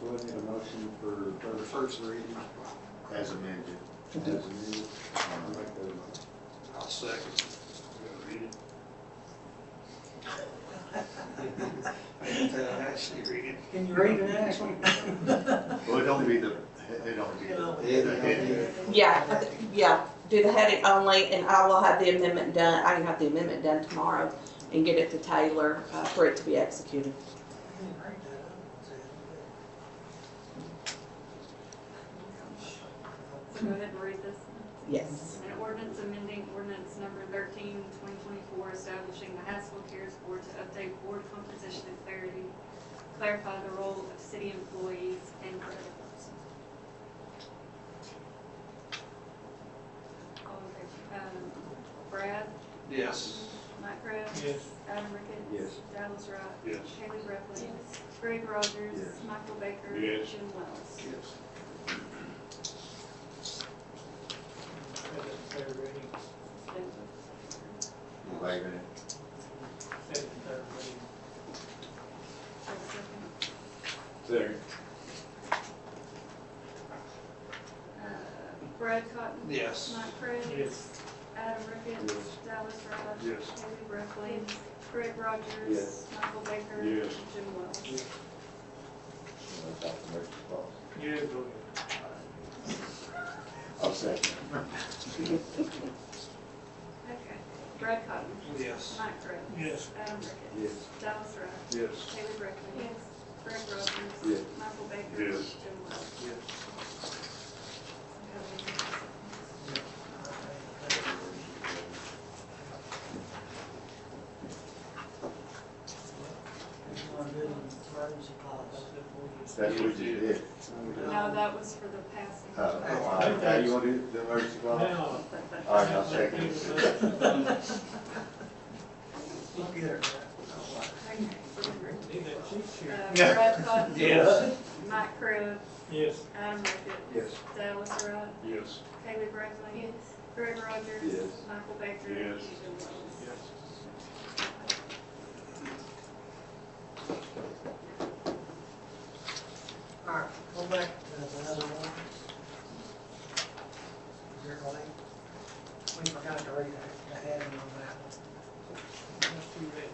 So we need a motion for for the first, first reading. as amended. as amended. I'll Uh, make that motion. I'll second. Read it. Actually, read it. Can you read the next one? Well, it don't be the, it don't be the. the heading. Yeah, I thi- yeah, do the heading only, and I will have the amendment done, I can have the amendment done tomorrow and get it to Taylor uh, for it to be executed. So go ahead and read this. Yes. An ordinance amending ordinance number 13, 2024, establishing the Haskell Cares Board to update board composition and clarity, clarify the role of city employees and creditors. All in favor? Um, Brad, Yes. Mike Kraft. Yes. Adam Ricketts. Yes. Dallas Rock. Yes. Haley Roethlisberger. Greg Rogers. Yes. Michael Baker. Yes. Jim Wells. Yes. Second, third reading. Wait a minute. Second, third reading. Second. Second. Uh, Brad Cotton. Yes. Mike Cribb. Yes. Adam Ricketts. Dallas Ross. Yes. Haley Brockley. Greg Rogers. Yes. Michael Baker. Yes. Jim Wells. Dr. Murphy, pause. Yeah, go ahead. I'll second. Okay. Brad Cotton. Yes. Mike Cribb. Yes. Adam Ricketts. Yes. Dallas Ross. Yes. Haley Brockley. Yes. Greg Rogers. Yes. Michael Baker. Yes. Jim Wells. Yes. That's what you did. No, that was for the passing. Uh, all right, Now you want to do the emergency clause? Now. All right, I'll second it. Look at her. Okay. Need that cheat sheet. Uh, Brad Cotton. Yes. Mike Cribb. Yes. Adam Ricketts. Yes. Dallas Ross. Yes. Haley Brockley. Yes. Greg Rogers. Yes. Michael Baker. Yes. Jim Wells. Yes. All right, go back to the other one. Here, Lee. We forgot to read that, the heading on that one. That's too late.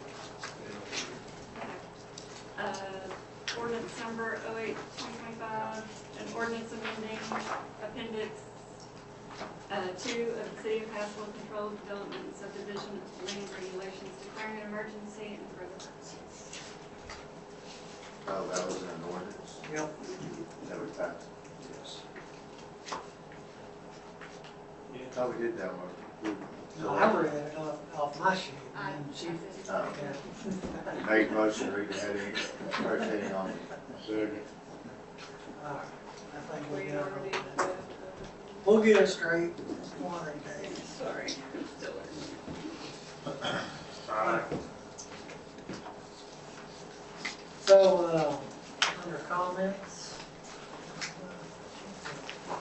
Uh, ordinance number 08-2025, an ordinance amending appendix, uh, two of the City of Haskell Controlled Development Subdivision Land Regulations declaring an emergency and for the. Oh, that was an ordinance. Yep. That was passed. Yes. Yes. Oh, we did that one. No, I read it off, off my sheet, I- and she, Oh. yeah. We Made motion, read the heading, first heading on. Second. All right, I think we We got already, it. uh, We'll get it straight one of these days. sorry, still learning. So, uh, under comments. Uh,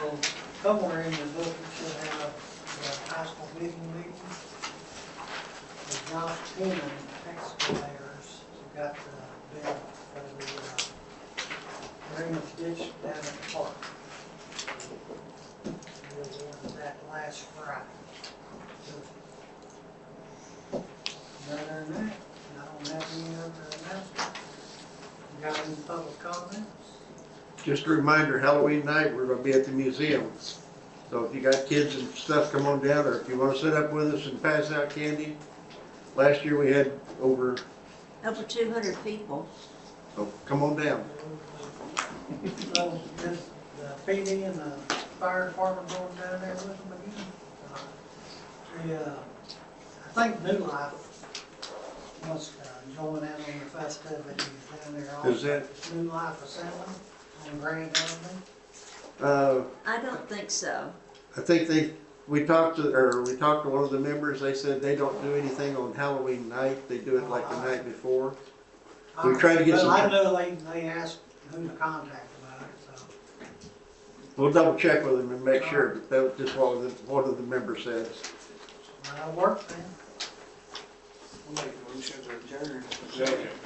Well, somewhere in the book, it should have the high school vision meeting. The Josh Penman excavators got the bid for the uh, drainage ditch down at the park. We awarded that last Friday. Other than that, I don't have any other announcements. You got any public comments? Just a reminder, Halloween night, we're gonna be at the museum. So if you got kids and stuff, come on down, or if you wanna sit up with us and pass out candy. Last year we had over, Over two hundred people. oh, come on down. So, just the PD and the fire department going down there with them again? Uh, The, uh, I think New Life must uh, join in on the festivities down there. also. Is that, New Life Assembly on Grand Avenue. uh, I don't think so. I think they, we talked to, or we talked to one of the members, they said they don't do anything on Halloween night, they do it like the night before. We tried to get some- Well, I know they, they asked who to contact about it, so. We'll double check with them and make sure, but that was just what the, one of the members said. That'll work then. I'll make a motion to adjourn. Second.